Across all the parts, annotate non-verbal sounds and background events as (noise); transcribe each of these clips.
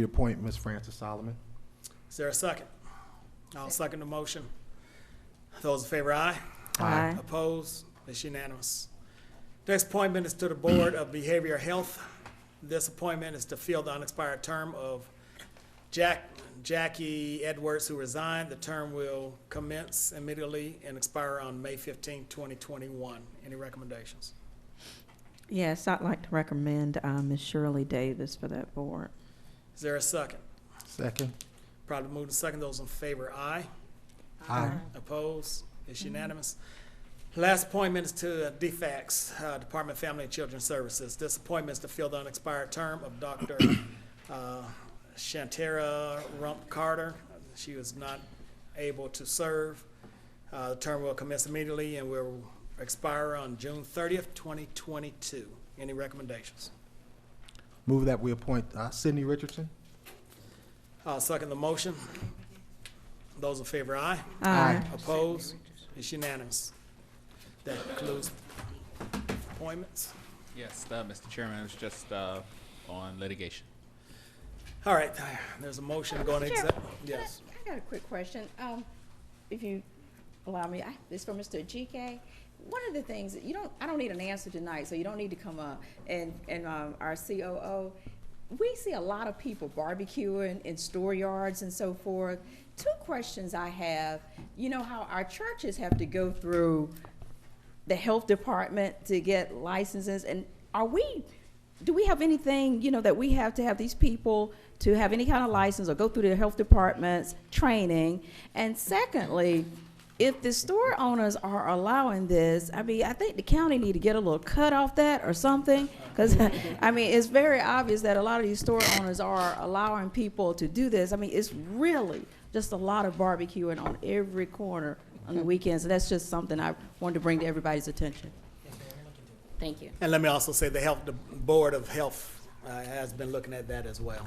reappoint Ms. Frances Solomon. Is there a second? I'll second the motion. Those in favor, aye. Aye. Opposed? It's unanimous. Next appointment is to the Board of Behavioral Health. This appointment is to fill the unexpired term of Jack, Jackie Edwards, who resigned. The term will commence immediately and expire on May 15, twenty twenty-one. Any recommendations? Yes, I'd like to recommend uh, Ms. Shirley Davis for that board. Is there a second? Second. Probably move to second. Those in favor, aye. Aye. Opposed? It's unanimous. Last appointment is to DFACS, uh, Department of Family and Children Services. This appointment is to fill the unexpired term of Dr. (coughs) uh, Shantara Rump Carter. She was not able to serve. Uh, The term will commence immediately and will expire on June thirtieth, twenty twenty-two. Any recommendations? Move that we appoint uh, Sidney Richardson. I'll second the motion. Those in favor, aye. Aye. Opposed? It's unanimous. That concludes appointments. Yes, uh, Mr. Chairman, it was just uh, on litigation. All right, there's a motion going to Chair, exec, can I- yes. I got a quick question. Um, if you allow me, I, this is for Mr. GK. One of the things, that you don't, I don't need an answer tonight, so you don't need to come up. And, and, um, our COO, we see a lot of people barbecuing in store yards and so forth. Two questions I have, you know how our churches have to go through the health department to get licenses, and are we, do we have anything, you know, that we have to have these people to have any kind of license or go through the health department's training? And secondly, if the store owners are allowing this, I mean, I think the county need to get a little cut off that or something, because, (laughs) I mean, it's very obvious that a lot of these store owners are allowing people to do this. I mean, it's really just a lot of barbecuing on every corner on the weekends, and that's just something I wanted to bring to everybody's attention. Thank you. And let me also say the health, the Board of Health uh, has been looking at that as well.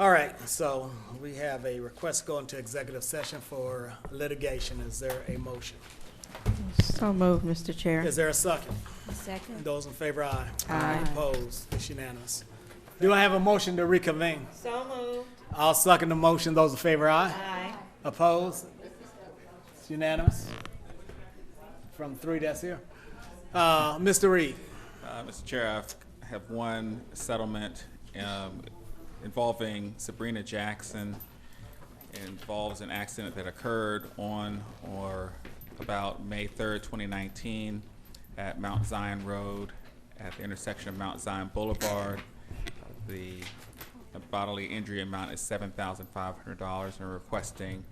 All right, so we have a request going to executive session for litigation. Is there a motion? So moved, Mr. Chair. Is there a second? Second. Those in favor, aye. Aye. Opposed, it's unanimous. Do I have a motion to reconvene? So moved. I'll second the motion, those in favor, aye. Aye. Opposed? It's unanimous. From three that's here. Uh, Mr. Reed, Uh, Mr. Chair, I have one settlement um, involving Sabrina Jackson. It involves an accident that occurred on or about May 3rd, 2019, at Mount Zion Road, at the intersection of Mount Zion Boulevard. The bodily injury amount is $7,500, and requesting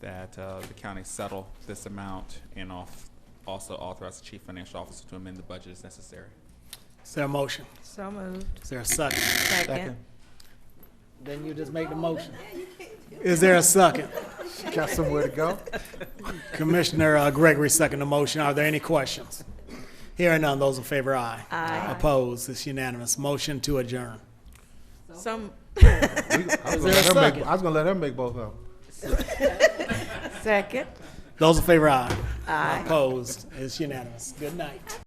that uh, the county settle this amount and off- also authorize the chief financial officer to amend the budget as necessary. is there a motion? So moved. Is there a second? Second. Then you just make the motion. Is there a second? Got somewhere to (laughs) go? Commissioner uh, Gregory second the motion. Are there any questions? Hearing none, those in favor, aye. Aye. Opposed, it's unanimous. Motion to adjourn. Some, We- I was there a gonna let her make- second? I was gonna let her make both of them. second. Those in favor, aye. Aye. Opposed, it's unanimous. Good night.